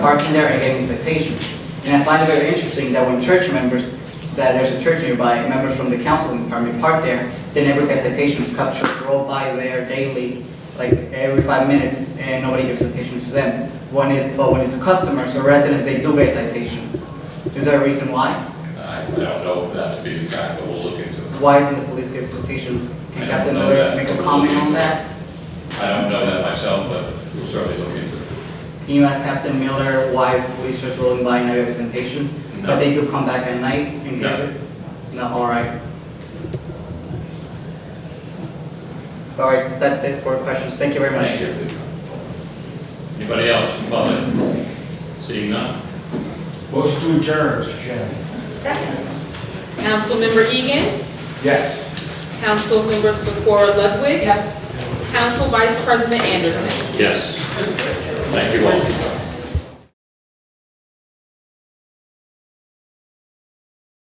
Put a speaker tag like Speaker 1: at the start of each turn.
Speaker 1: parking there and getting citations. And I find it very interesting that when church members, that there's a church nearby, members from the council department park there, they never get citations, cup trucks roll by there daily, like every five minutes, and nobody gives citations to them. One is, but when it's customers or residents, they do get citations. Is there a reason why?
Speaker 2: I I don't know if that'd be the guy, but we'll look into it.
Speaker 1: Why isn't the police giving citations? Can Captain Miller make a comment on that?
Speaker 2: I don't know that myself, but we'll certainly look into it.
Speaker 1: Can you ask Captain Miller why is the police just rolling by and not giving citations? But
Speaker 2: No.
Speaker 1: they do come back at night and get
Speaker 2: No.
Speaker 1: it? No, all right. All right, that's it for questions. Thank you very much.
Speaker 2: Thank you. Anybody else from public? Seeing none?
Speaker 3: Motion to adjourn, Mr. Chairman.
Speaker 4: Second.
Speaker 5: Councilmember Egan,
Speaker 3: Yes.
Speaker 5: Councilmember Sephora Ludwig,
Speaker 4: Yes.
Speaker 5: Council Vice President Anderson.
Speaker 2: Yes. Thank you all.